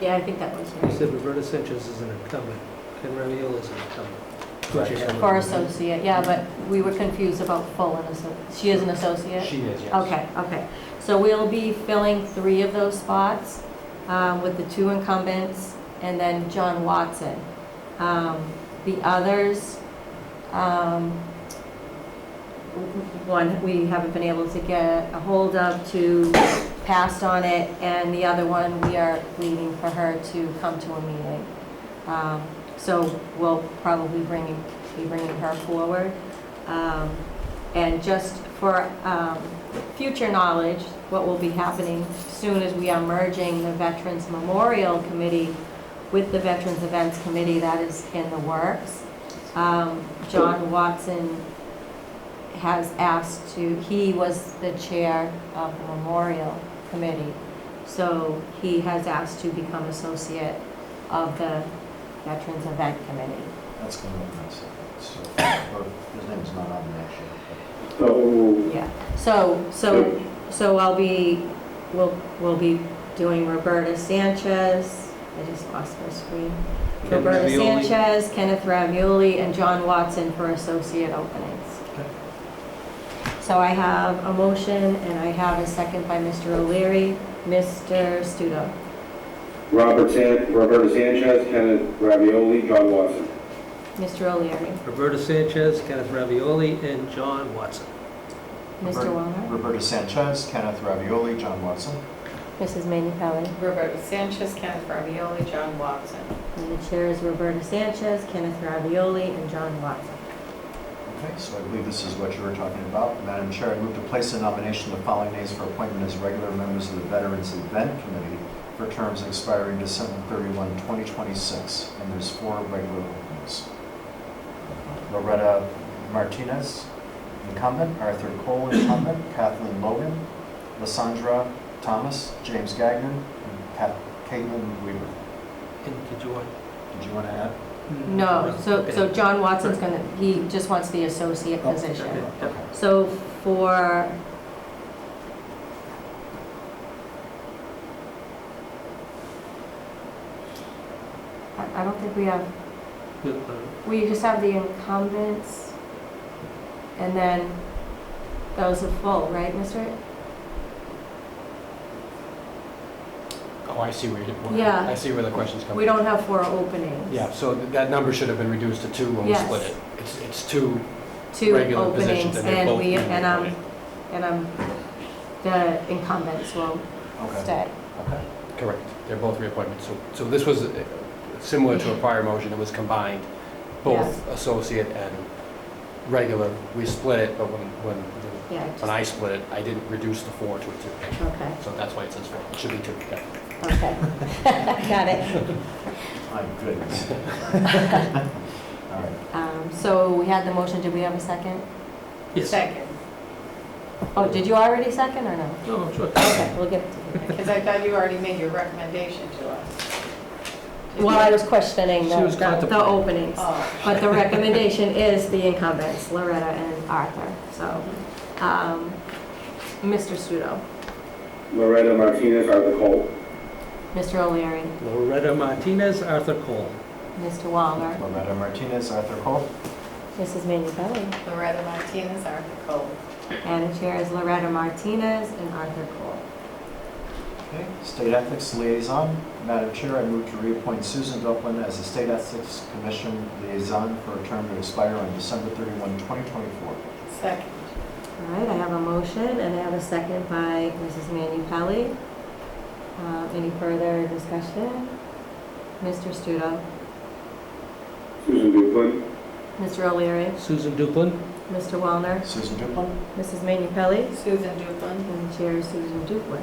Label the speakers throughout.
Speaker 1: Yeah, I think that was
Speaker 2: You
Speaker 1: right.
Speaker 2: said Roberta Sanchez is an incumbent, and Ramiola is an incumbent. Don't you have-
Speaker 1: For associate, yeah, but we were confused about full and associate. She is an associate?
Speaker 3: She is, yes.
Speaker 1: Okay, okay. So we'll be filling three of those spots um, with the two incumbents and then John Watson. Um, The others, um, w- w- one we haven't been able to get a hold of to pass on it, and the other one, we are waiting for her to come to a meeting. Um, So we'll probably bring, be bringing her forward. Um, And just for um, future knowledge, what will be happening soon is we are merging the Veterans Memorial Committee with the Veterans Events Committee, that is in the works. Um, John Watson has asked to, he was the chair of the Memorial Committee, so he has asked to become associate of the Veterans Event Committee.
Speaker 3: That's going to look nice. So, or His name's not on there actually.
Speaker 4: So,
Speaker 1: Yeah, so, so, so I'll be, we'll, we'll be doing Roberta Sanchez, I just lost my screen.
Speaker 2: Ken
Speaker 1: Roberta
Speaker 2: Ravioli.
Speaker 1: Sanchez, Kenneth Ravioli, and John Watson for associate openings.
Speaker 2: Okay.
Speaker 1: So I have a motion and I have a second by Mr. O'Leary. Mr. Studo.
Speaker 4: Robert San, Roberta Sanchez, Kenneth Ravioli, John Watson.
Speaker 1: Mr. O'Leary.
Speaker 2: Roberta Sanchez, Kenneth Ravioli, and John Watson.
Speaker 1: Mr. Walner.
Speaker 3: Roberta Sanchez, Kenneth Ravioli, John Watson.
Speaker 1: Mrs. Manu Pelli.
Speaker 5: Roberta Sanchez, Kenneth Ravioli, John Watson.
Speaker 1: And the chair is Roberta Sanchez, Kenneth Ravioli, and John Watson.
Speaker 3: Okay, so I believe this is what you were talking about. Madam Chair, I move to place a nomination of the following names for appointment as regular members of the Veterans Event Committee for terms expiring December 31, 2026, and there's four regular openings. Loretta Martinez, incumbent, Arthur Cole, incumbent, Kathleen Logan, Lysandra Thomas, James Gagnon, and Pat- Caitlin Weaver.
Speaker 2: And did you want?
Speaker 3: Did you want to add?
Speaker 1: No, so,
Speaker 2: Okay.
Speaker 1: so John Watson's gonna, he just wants the associate
Speaker 3: Oh,
Speaker 2: Okay,
Speaker 1: position.
Speaker 2: yep.
Speaker 1: So for... I I don't think we have,
Speaker 2: Good, uh,
Speaker 1: we just have the incumbents, and then those are full, right, Mr.?
Speaker 6: Oh, I see where you're,
Speaker 1: Yeah.
Speaker 6: well, I see where the question's coming.
Speaker 1: We don't have four openings.
Speaker 6: Yeah, so th- that number should have been reduced to two when we
Speaker 1: Yes.
Speaker 6: split it. It's, it's two
Speaker 1: Two
Speaker 6: regular
Speaker 1: openings,
Speaker 6: positions and they're
Speaker 1: and
Speaker 6: both.
Speaker 1: we,
Speaker 6: being
Speaker 1: and, um,
Speaker 6: appointed.
Speaker 1: and, um, the incumbents will
Speaker 3: Okay.
Speaker 1: stay.
Speaker 3: Okay.
Speaker 6: Correct, they're both reappointments. So, so this was uh, similar to a prior motion, it was combined, both associate and regular. We split it, but when, when, the-
Speaker 1: Yeah,
Speaker 6: when
Speaker 1: just-
Speaker 6: I split it, I didn't reduce the four to a two.
Speaker 1: okay.
Speaker 6: So that's why it says four, it should be two. yeah.
Speaker 1: Okay, got it.
Speaker 3: My goodness. All right.
Speaker 1: Um, So we had the motion, did we have a second?
Speaker 2: Yes,
Speaker 5: Second,
Speaker 1: Oh, did you already second or no?
Speaker 2: no, sure.
Speaker 1: Okay, we'll give it to you.
Speaker 5: because I thought you already made your recommendation to us.
Speaker 1: Well, I was questioning the
Speaker 2: She was
Speaker 1: the- the
Speaker 2: contemplating.
Speaker 1: openings,
Speaker 5: Oh,
Speaker 1: but the recommendation is the incumbents, Loretta and Arthur, so. um, Mr. Studo,
Speaker 4: Loretta Martinez, Arthur Cole.
Speaker 1: Mr. O'Leary,
Speaker 2: Loretta Martinez, Arthur Cole.
Speaker 1: Mr. Walner,
Speaker 3: Loretta Martinez, Arthur Cole.
Speaker 1: Mrs. Manu Pelli,
Speaker 5: Loretta Martinez, Arthur Cole.
Speaker 1: and the chair is Loretta Martinez and Arthur Cole.
Speaker 3: Okay. State Ethics Liaison. Madam Chair, I move to reappoint Susan Duplin as the State Ethics Commission Liaison for a term to expire on December 31, 2024.
Speaker 5: Second,
Speaker 1: All right, I have a motion and I have a second by Mrs. Manu Pelli. Uh, Any further discussion? Mr. Studo,
Speaker 4: Susan Duplin.
Speaker 1: Mr. O'Leary,
Speaker 2: Susan Duplin.
Speaker 1: Mr. Wallner,
Speaker 3: Susan Duplin.
Speaker 1: Mrs. Manu Pelli,
Speaker 5: Susan Duplin.
Speaker 1: and the Chair is Susan Duplin.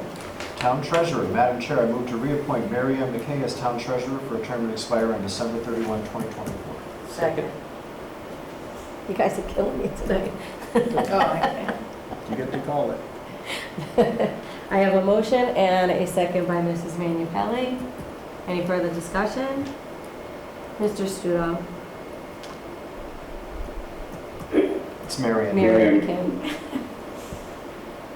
Speaker 3: Town Treasurer. Madam Chair, I move to reappoint Mary M. McKay as Town Treasurer for a term to expire on December 31, 2024.
Speaker 2: Second.
Speaker 1: You guys are killing me tonight.
Speaker 5: Oh, okay.
Speaker 3: You get to call it.
Speaker 1: I have a motion and a second by Mrs. Manu Pelli. Any further discussion? Mr. Studo,
Speaker 3: It's Mary Ann.
Speaker 1: Mary
Speaker 4: Mary.
Speaker 1: McKim,